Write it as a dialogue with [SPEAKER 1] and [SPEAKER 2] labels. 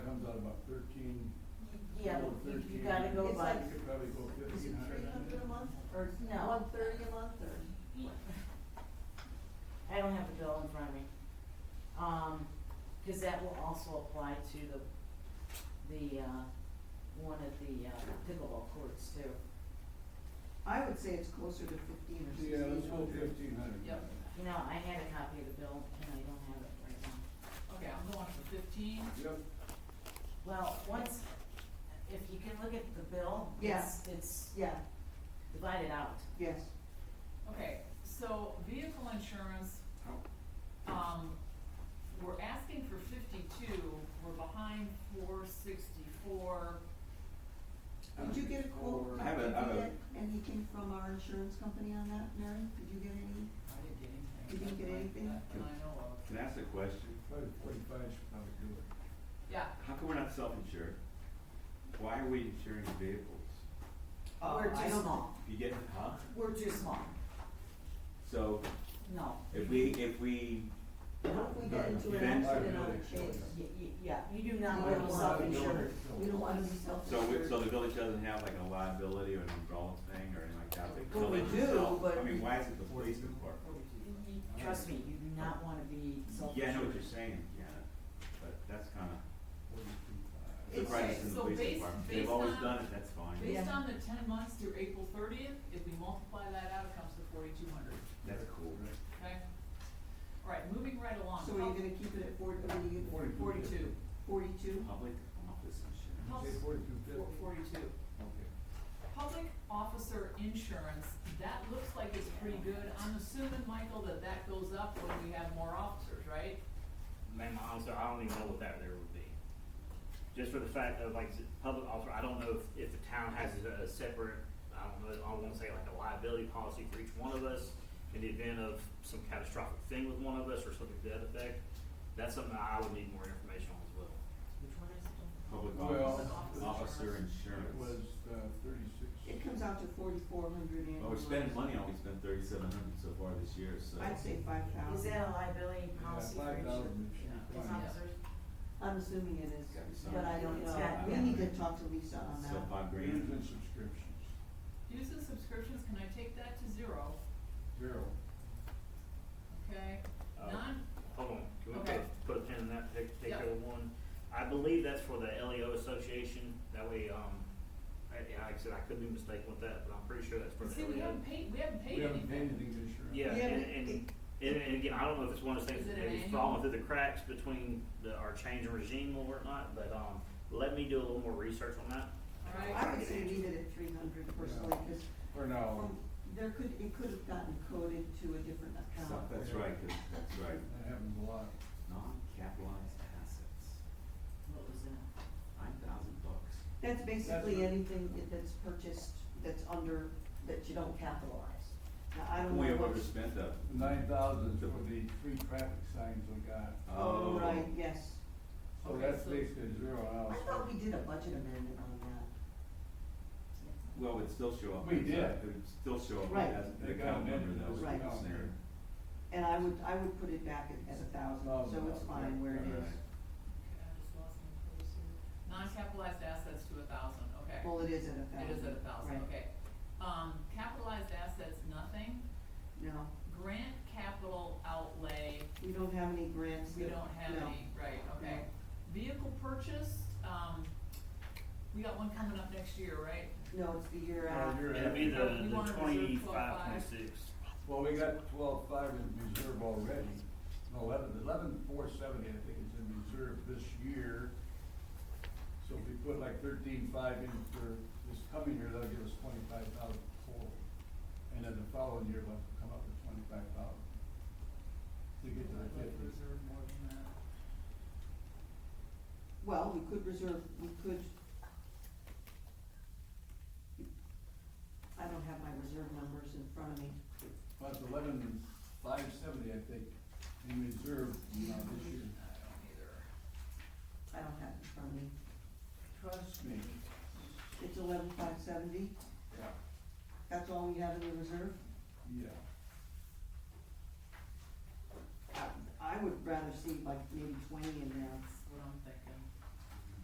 [SPEAKER 1] about thirteen.
[SPEAKER 2] Yeah,
[SPEAKER 1] well,
[SPEAKER 2] you- you
[SPEAKER 1] 13.
[SPEAKER 2] gotta go
[SPEAKER 1] You
[SPEAKER 2] by-
[SPEAKER 1] could probably go
[SPEAKER 3] Is it
[SPEAKER 1] fifteen
[SPEAKER 3] three
[SPEAKER 1] hundred on
[SPEAKER 3] hundred a
[SPEAKER 1] that.
[SPEAKER 3] month or
[SPEAKER 2] No.
[SPEAKER 3] one thirty a month or? what?
[SPEAKER 2] I don't have the bill in front of me. Um, cause that will also apply to the, the, uh, one at the uh, pickleball courts too.
[SPEAKER 3] I would say it's closer to fifteen or sixteen.
[SPEAKER 1] Yeah, let's go fifteen hundred.
[SPEAKER 4] Yep.
[SPEAKER 2] You know, I had a copy of the bill and I don't have it right now.
[SPEAKER 4] Okay, I'm going for fifteen.
[SPEAKER 1] Yep,
[SPEAKER 2] Well, once, if you can look at the bill,
[SPEAKER 3] Yeah.
[SPEAKER 2] it's, it's
[SPEAKER 3] Yeah,
[SPEAKER 2] divided out.
[SPEAKER 3] yes.
[SPEAKER 4] Okay, so vehicle insurance, um, we're asking for fifty-two, we're behind four sixty-four.
[SPEAKER 3] Did you get a quote?
[SPEAKER 1] Or-
[SPEAKER 5] I have a-
[SPEAKER 3] Did you
[SPEAKER 5] I have a-
[SPEAKER 3] get Anything from our insurance company on that, Mary? Did you get any?
[SPEAKER 4] I didn't get anything.
[SPEAKER 3] You didn't get
[SPEAKER 4] like
[SPEAKER 3] anything?
[SPEAKER 4] that that I know of.
[SPEAKER 5] Can I ask a question?
[SPEAKER 1] Probably forty-five should probably do it.
[SPEAKER 4] Yeah,
[SPEAKER 5] How come we're not self-insured? Why are we insuring vehicles?
[SPEAKER 3] Oh,
[SPEAKER 2] We're
[SPEAKER 3] I
[SPEAKER 2] too
[SPEAKER 3] don't-
[SPEAKER 2] small.
[SPEAKER 5] If you get, huh?
[SPEAKER 2] We're too small.
[SPEAKER 5] So
[SPEAKER 2] No.
[SPEAKER 5] if we, if we,
[SPEAKER 3] What if we get
[SPEAKER 1] No,
[SPEAKER 3] into
[SPEAKER 5] no,
[SPEAKER 3] an
[SPEAKER 5] you
[SPEAKER 3] accident
[SPEAKER 1] didn't.
[SPEAKER 3] on a chase?
[SPEAKER 2] Y- y- yeah, you do not
[SPEAKER 3] We're
[SPEAKER 2] want
[SPEAKER 3] not
[SPEAKER 2] to self-insured.
[SPEAKER 3] We don't wanna be
[SPEAKER 5] so we,
[SPEAKER 3] self-insured.
[SPEAKER 5] so the village doesn't have like a liability or an umbrella thing or anything like that? that
[SPEAKER 3] Well, we
[SPEAKER 5] covers
[SPEAKER 3] do,
[SPEAKER 5] itself? I
[SPEAKER 3] but
[SPEAKER 5] mean, why is it the police department?
[SPEAKER 2] You- you- Trust me, you do not want to be
[SPEAKER 5] Yeah, I know
[SPEAKER 2] self-insured.
[SPEAKER 5] what you're saying, yeah, but that's kinda
[SPEAKER 3] It's-
[SPEAKER 5] surprising to the
[SPEAKER 4] so
[SPEAKER 5] police
[SPEAKER 4] based-
[SPEAKER 5] department.
[SPEAKER 4] based
[SPEAKER 5] They've always
[SPEAKER 4] on-
[SPEAKER 5] done it, that's fine.
[SPEAKER 4] based
[SPEAKER 3] Yeah.
[SPEAKER 4] on the ten months through April thirtieth, if we multiply that out, it comes to forty-two hundred,
[SPEAKER 5] That's cool.
[SPEAKER 4] okay? All right, moving right along.
[SPEAKER 3] So are you gonna keep it at forty, are you gonna,
[SPEAKER 1] Forty-two.
[SPEAKER 4] Forty-two,
[SPEAKER 3] forty-two?
[SPEAKER 5] Public office insurance.
[SPEAKER 4] House-
[SPEAKER 1] Say forty-two
[SPEAKER 4] four,
[SPEAKER 1] fifty.
[SPEAKER 4] forty-two.
[SPEAKER 1] Okay.
[SPEAKER 4] Public officer insurance, that looks like it's pretty good. I'm assuming, Michael, that that goes up when we have more officers, right?
[SPEAKER 6] Man, honestly, I don't even know what that there would be. Just for the fact of like, s- public officer, I don't know if, if the town has a a separate, I don't know, I won't say like a liability policy for each one of us in the event of some catastrophic thing with one of us or something to that effect. That's something I would need more information on as well.
[SPEAKER 2] Which one is it?
[SPEAKER 5] Public
[SPEAKER 1] Well,
[SPEAKER 5] office, officer
[SPEAKER 1] It was,
[SPEAKER 5] insurance.
[SPEAKER 1] uh, thirty-six.
[SPEAKER 3] It comes out to forty-four hundred annually.
[SPEAKER 5] Well, we're spending Oh, money on, we spent thirty-seven hundred so far this year, so.
[SPEAKER 3] I'd say five
[SPEAKER 2] Is
[SPEAKER 3] thousand.
[SPEAKER 2] that a liability policy for
[SPEAKER 1] Yeah, five
[SPEAKER 2] insurance?
[SPEAKER 1] thousand.
[SPEAKER 2] Police officers?
[SPEAKER 3] I'm assuming it
[SPEAKER 5] Gotta be
[SPEAKER 3] is,
[SPEAKER 5] something.
[SPEAKER 3] but I don't
[SPEAKER 2] It's
[SPEAKER 3] know.
[SPEAKER 2] got-
[SPEAKER 3] We need to talk to Lisa on
[SPEAKER 5] So
[SPEAKER 3] that.
[SPEAKER 5] five
[SPEAKER 1] Dues
[SPEAKER 5] grand.
[SPEAKER 1] and subscriptions,
[SPEAKER 4] Dues and subscriptions, can I take that to zero?
[SPEAKER 1] zero.
[SPEAKER 4] Okay,
[SPEAKER 6] Uh,
[SPEAKER 4] none?
[SPEAKER 6] Hold on, can we put,
[SPEAKER 4] Okay.
[SPEAKER 6] a- put a pin in that pic-
[SPEAKER 4] Yeah.
[SPEAKER 6] particular one? I believe that's for the LEO Association, that way, um, I, I- like I said, I could be mistaken with that, but I'm pretty sure that's for the E
[SPEAKER 4] See,
[SPEAKER 6] LEO.
[SPEAKER 4] we haven't paid, we haven't paid
[SPEAKER 1] We haven't paid
[SPEAKER 4] anything.
[SPEAKER 1] anything this year.
[SPEAKER 6] Yeah,
[SPEAKER 3] Yeah,
[SPEAKER 6] and,
[SPEAKER 3] but
[SPEAKER 6] and,
[SPEAKER 3] it-
[SPEAKER 6] and, and again, I don't know if it's one of those things
[SPEAKER 4] Is it
[SPEAKER 6] that
[SPEAKER 4] an
[SPEAKER 6] maybe
[SPEAKER 4] annual?
[SPEAKER 6] falling through the cracks between the, our change in regime or whatnot, but, um, let me do a little more research on that.
[SPEAKER 4] All
[SPEAKER 6] I'll
[SPEAKER 4] right,
[SPEAKER 3] I
[SPEAKER 6] try to
[SPEAKER 3] would
[SPEAKER 6] get
[SPEAKER 3] say
[SPEAKER 6] an
[SPEAKER 3] leave
[SPEAKER 6] answer.
[SPEAKER 3] it at three hundred personally, cause
[SPEAKER 1] For now,
[SPEAKER 3] from- there could, it could have gotten coded to a different account.
[SPEAKER 5] That's right, 'cause that's right.
[SPEAKER 1] that happens a lot.
[SPEAKER 5] Non-capitalized assets,
[SPEAKER 2] What was that?
[SPEAKER 5] nine thousand bucks.
[SPEAKER 3] That's basically
[SPEAKER 1] right.
[SPEAKER 3] anything that- that's purchased, that's under, that you don't capitalize. Now, I don't
[SPEAKER 5] We
[SPEAKER 3] know
[SPEAKER 5] have
[SPEAKER 3] what's.
[SPEAKER 5] overspent that.
[SPEAKER 1] Nine thousand for the free traffic signs we got,
[SPEAKER 3] Oh,
[SPEAKER 1] Um,
[SPEAKER 3] right, yes.
[SPEAKER 1] so
[SPEAKER 4] Okay,
[SPEAKER 1] that's
[SPEAKER 4] so-
[SPEAKER 1] basically zero
[SPEAKER 3] I
[SPEAKER 1] hours.
[SPEAKER 3] thought we did a budget amendment on that.
[SPEAKER 5] Well, it'd still show up.
[SPEAKER 1] We
[SPEAKER 5] as a-
[SPEAKER 1] did.
[SPEAKER 5] It'd still show up
[SPEAKER 3] Right.
[SPEAKER 5] as an
[SPEAKER 1] They got
[SPEAKER 5] account number
[SPEAKER 1] amended.
[SPEAKER 5] that was
[SPEAKER 3] Right.
[SPEAKER 5] there.
[SPEAKER 3] And I would, I would put it back at, at a thousand,
[SPEAKER 1] Oh,
[SPEAKER 3] so it's fine where it is.
[SPEAKER 5] Alright.
[SPEAKER 4] Okay, I just lost my place here. Non-capitalized assets to a thousand, okay.
[SPEAKER 3] Well, it is at a
[SPEAKER 4] It
[SPEAKER 3] thousand.
[SPEAKER 4] is at a thousand,
[SPEAKER 3] right.
[SPEAKER 4] okay. Um, capitalized assets, nothing.
[SPEAKER 3] No,
[SPEAKER 4] Grant capital outlay,
[SPEAKER 3] we don't have any grants.
[SPEAKER 4] We
[SPEAKER 3] that-
[SPEAKER 4] don't have
[SPEAKER 3] no.
[SPEAKER 4] any, right, okay. Vehicle purchase, um, we got one coming up next year, right?
[SPEAKER 3] No, it's the year
[SPEAKER 1] Uh,
[SPEAKER 3] after.
[SPEAKER 1] you're
[SPEAKER 6] It'd
[SPEAKER 1] at-
[SPEAKER 4] You
[SPEAKER 6] be the,
[SPEAKER 4] wanna
[SPEAKER 6] the
[SPEAKER 4] reserve
[SPEAKER 6] twenty-five,
[SPEAKER 4] 12.5?
[SPEAKER 6] twenty-six.
[SPEAKER 1] Well, we got twelve-five in reserve already, eleven, eleven-four seventy, I think is in reserve this year. So if we put like thirteen-five in for this coming year, that'll give us twenty-five thousand total. And then the following year, we'll come up with twenty-five thousand. To get to the fifty.
[SPEAKER 4] Reserve more than that.
[SPEAKER 3] Well, we could reserve, we could. I don't have my reserve numbers in front of me.
[SPEAKER 1] About eleven-five seventy, I think, in reserve, you know, this year.
[SPEAKER 3] I
[SPEAKER 4] I don't either.
[SPEAKER 3] don't have it in front of me.
[SPEAKER 1] Trust me.
[SPEAKER 3] It's eleven five seventy,
[SPEAKER 1] Yeah.
[SPEAKER 3] that's all we have in the reserve?
[SPEAKER 1] Yeah.
[SPEAKER 3] I- I would rather see like maybe twenty in there.